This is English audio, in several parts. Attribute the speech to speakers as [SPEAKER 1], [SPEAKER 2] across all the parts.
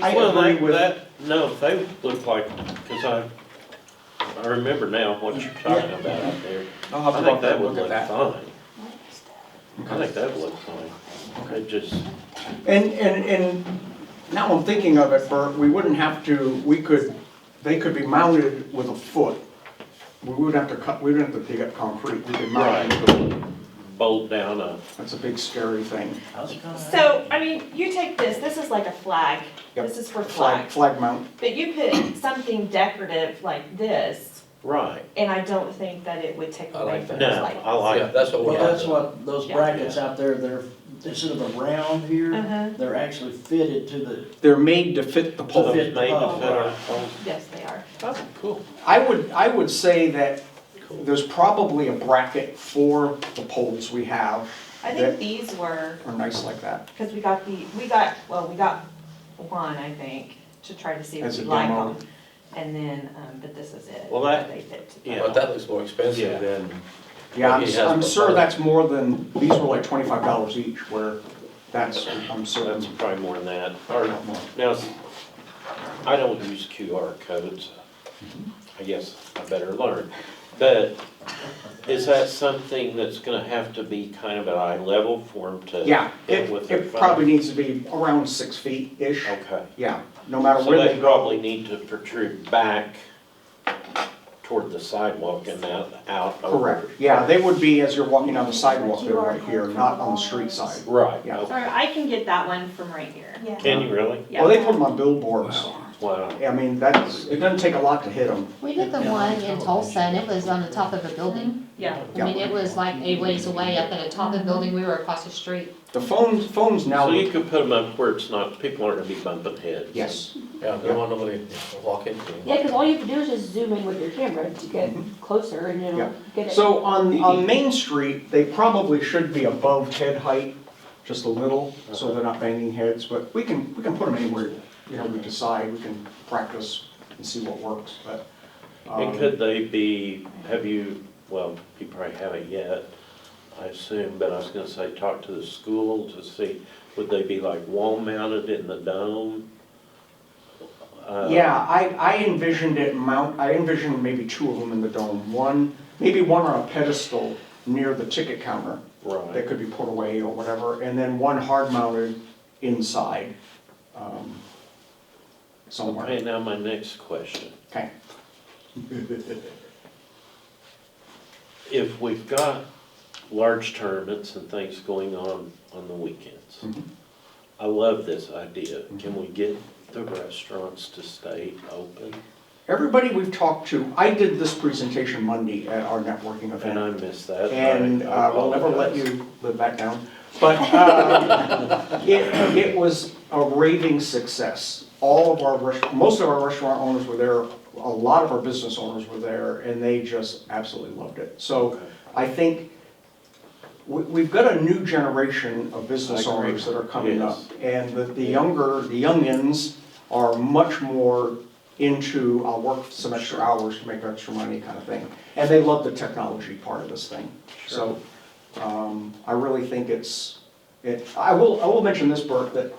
[SPEAKER 1] I
[SPEAKER 2] Well,
[SPEAKER 1] agree
[SPEAKER 2] that-
[SPEAKER 1] with-
[SPEAKER 2] that- No, they look like, because I, I remember now what you're talking
[SPEAKER 1] Yeah.
[SPEAKER 2] about out there.
[SPEAKER 1] I'll have
[SPEAKER 2] I
[SPEAKER 1] to
[SPEAKER 2] think
[SPEAKER 1] walk
[SPEAKER 2] that
[SPEAKER 1] that,
[SPEAKER 2] would
[SPEAKER 1] look at
[SPEAKER 2] look
[SPEAKER 1] that.
[SPEAKER 2] fine. I think that would look fine. It just,
[SPEAKER 1] And, and, and now I'm thinking of it, Bert, we wouldn't have to, we could, they could be mounted with a foot. We wouldn't have to cut, we wouldn't have to dig up concrete, we could mount
[SPEAKER 2] right,
[SPEAKER 1] it.
[SPEAKER 2] it'll bolt down a,
[SPEAKER 1] That's a big scary thing.
[SPEAKER 3] So, I mean, you take this, this is like a flag,
[SPEAKER 1] Yep.
[SPEAKER 3] this is for
[SPEAKER 1] Flag,
[SPEAKER 3] flags,
[SPEAKER 1] flag mount.
[SPEAKER 3] but you put something decorative like this,
[SPEAKER 2] right.
[SPEAKER 3] and I don't think that it would take
[SPEAKER 4] I
[SPEAKER 3] away
[SPEAKER 4] like
[SPEAKER 3] from
[SPEAKER 2] No,
[SPEAKER 3] those
[SPEAKER 2] I
[SPEAKER 3] lights.
[SPEAKER 5] Yeah,
[SPEAKER 2] like,
[SPEAKER 4] that's what
[SPEAKER 5] Well,
[SPEAKER 4] we're.
[SPEAKER 5] that's what, those
[SPEAKER 3] Yeah.
[SPEAKER 5] brackets out there, they're, instead of a round
[SPEAKER 3] Uh-huh.
[SPEAKER 5] here, they're actually fitted to the,
[SPEAKER 1] They're made to fit the
[SPEAKER 2] so
[SPEAKER 1] pole.
[SPEAKER 2] it's made
[SPEAKER 1] Oh,
[SPEAKER 2] to fit our poles.
[SPEAKER 3] Yes, they are.
[SPEAKER 2] Oh, cool,
[SPEAKER 1] I would, I would say that
[SPEAKER 2] cool.
[SPEAKER 1] there's probably a bracket for the poles we have
[SPEAKER 3] I
[SPEAKER 1] That-
[SPEAKER 3] think these were,
[SPEAKER 1] are nice like that.
[SPEAKER 3] because we got the, we got, well, we got one, I think, to try to see if
[SPEAKER 1] As
[SPEAKER 3] we
[SPEAKER 1] a
[SPEAKER 3] like
[SPEAKER 1] demo.
[SPEAKER 3] them. And then, um, but this is it.
[SPEAKER 2] Well, that-
[SPEAKER 3] They fit to the-
[SPEAKER 2] yeah.
[SPEAKER 4] But that looks more
[SPEAKER 2] Yeah.
[SPEAKER 4] expensive than,
[SPEAKER 1] Yeah, I'm,
[SPEAKER 4] He
[SPEAKER 1] s-
[SPEAKER 4] has
[SPEAKER 1] I'm sure
[SPEAKER 4] proposed.
[SPEAKER 1] that's more than, these were like twenty-five dollars each, where that's, I'm
[SPEAKER 2] That's
[SPEAKER 1] certain.
[SPEAKER 2] probably more than that. Or, now, I don't use QR codes. I guess I better learn. But is that something that's gonna have to be kind of at eye level for them to?
[SPEAKER 1] Yeah,
[SPEAKER 2] hit
[SPEAKER 1] it,
[SPEAKER 2] with their
[SPEAKER 1] it
[SPEAKER 2] phone?
[SPEAKER 1] probably needs to be around six feet-ish,
[SPEAKER 2] Okay.
[SPEAKER 1] yeah, no matter
[SPEAKER 2] So
[SPEAKER 1] where they
[SPEAKER 2] they
[SPEAKER 1] go.
[SPEAKER 2] probably need to protrude back toward the sidewalk and out, out over.
[SPEAKER 1] Correct, yeah, they would be as you're walking down the sidewalk, they're
[SPEAKER 6] QR
[SPEAKER 1] right here,
[SPEAKER 6] code
[SPEAKER 1] not on the
[SPEAKER 6] for
[SPEAKER 1] street
[SPEAKER 6] the
[SPEAKER 1] side.
[SPEAKER 2] Right,
[SPEAKER 1] Yeah.
[SPEAKER 2] okay.
[SPEAKER 3] Or I can get that one from right here.
[SPEAKER 6] Yeah.
[SPEAKER 2] Can you really?
[SPEAKER 3] Yeah.
[SPEAKER 1] Well, they put them on billboards,
[SPEAKER 2] Wow.
[SPEAKER 1] I mean, that's, it doesn't take a lot to hit them.
[SPEAKER 7] We did the one in Tulsa and it was on the top of a building.
[SPEAKER 3] Yeah.
[SPEAKER 7] I mean, it was like a ways away up at the top of the building. We were across the street.
[SPEAKER 1] The phones, phones now,
[SPEAKER 2] So you
[SPEAKER 1] look-
[SPEAKER 2] could put them up where it's not, people aren't gonna be bumping heads.
[SPEAKER 1] yes,
[SPEAKER 4] yeah, they don't want nobody to walk into.
[SPEAKER 6] Yeah, because all you have to do is just zoom in with your camera to get closer and
[SPEAKER 1] Yeah.
[SPEAKER 6] it'll get it.
[SPEAKER 1] so on,
[SPEAKER 2] E.
[SPEAKER 1] on Main Street, they probably should be above head height, just a little, so they're not banging heads, but we can, we can put them anywhere, you know, we decide, we can practice and see what works, but. um,
[SPEAKER 2] And could they be, have you, well, you probably haven't yet, I assume, but I was gonna say, talk to the school to see, would they be like wall mounted in the dome? Uh,
[SPEAKER 1] Yeah, I, I envisioned it mount, I envisioned maybe two of them in the dome, one, maybe one on a pedestal near the ticket counter that
[SPEAKER 2] Right,
[SPEAKER 1] could be put away or whatever, and then one hard mounted inside, um, somewhere,
[SPEAKER 2] okay, now my next question,
[SPEAKER 1] okay.
[SPEAKER 2] if we've got large tournaments and things going on on the weekends,
[SPEAKER 1] Mhm.
[SPEAKER 2] I love this idea,
[SPEAKER 1] Mm-hmm.
[SPEAKER 2] can we get the restaurants to stay open?
[SPEAKER 1] Everybody we've talked to, I did this presentation Monday at our networking
[SPEAKER 2] And I
[SPEAKER 1] event,
[SPEAKER 2] miss that. I-
[SPEAKER 1] and
[SPEAKER 2] I
[SPEAKER 1] uh, we'll never let
[SPEAKER 2] apologize.
[SPEAKER 1] you live that down, but, um, it, it was a raving success. All of our, rest- most of our restaurant owners were there, a lot of our business owners were there, and they just absolutely loved it. So
[SPEAKER 2] Okay.
[SPEAKER 1] I think we, we've got a new generation of business
[SPEAKER 2] I agree.
[SPEAKER 1] owners that are coming up.
[SPEAKER 2] Yes.
[SPEAKER 1] And the, the younger, the youngins are much more into, I'll work some extra hours to make extra money kind of thing. And they love the technology part of this thing. So, um, I really think it's, it, I will, I will mention this, Bert, that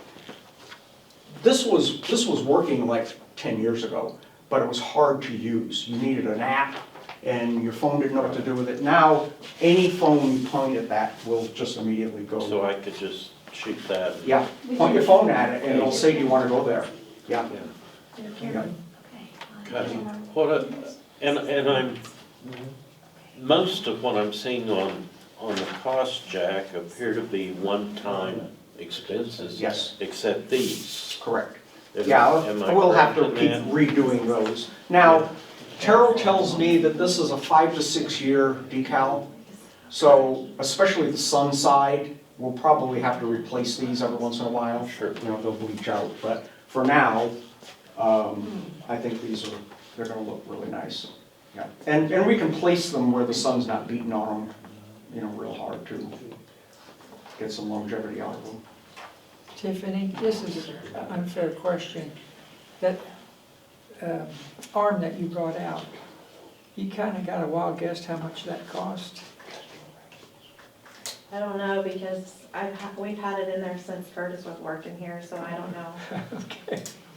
[SPEAKER 1] this was, this was working like ten years ago, but it was hard to use. You needed an app and your phone didn't know what to do with it. Now, any phone you point at that will just immediately
[SPEAKER 2] So
[SPEAKER 1] go.
[SPEAKER 2] I could just shoot that? and-
[SPEAKER 1] Yeah, point your phone at it and it'll say, do you wanna go there? Yeah,
[SPEAKER 2] Yeah.
[SPEAKER 1] yeah.
[SPEAKER 2] Okay. What, a- and, and I'm, most of what I'm seeing on, on the cost, Jack, appear to be one-time expenses.
[SPEAKER 1] Yes.
[SPEAKER 2] Except these.
[SPEAKER 1] Correct.
[SPEAKER 2] Am-
[SPEAKER 1] Yeah,
[SPEAKER 2] am I
[SPEAKER 1] we'll have to
[SPEAKER 2] correct
[SPEAKER 1] keep
[SPEAKER 2] in that?
[SPEAKER 1] redoing those. Now, Terrell tells me that this is a five to six year decal. So especially the sun side, we'll probably have to replace these every once in a while.
[SPEAKER 2] Sure.
[SPEAKER 1] You know, they'll bleach out, but for now, um, I think these are, they're gonna look really nice. Yeah, and, and we can place them where the sun's not beating on them, you know, real hard to get some longevity out of them.
[SPEAKER 8] Tiffany, this is an unfair question. That um, arm that you brought out, you kind of got a wild guess how much that cost?
[SPEAKER 3] I don't know, because I've, ha- we've had it in there since Curtis was working here, so I don't know.
[SPEAKER 8] Okay.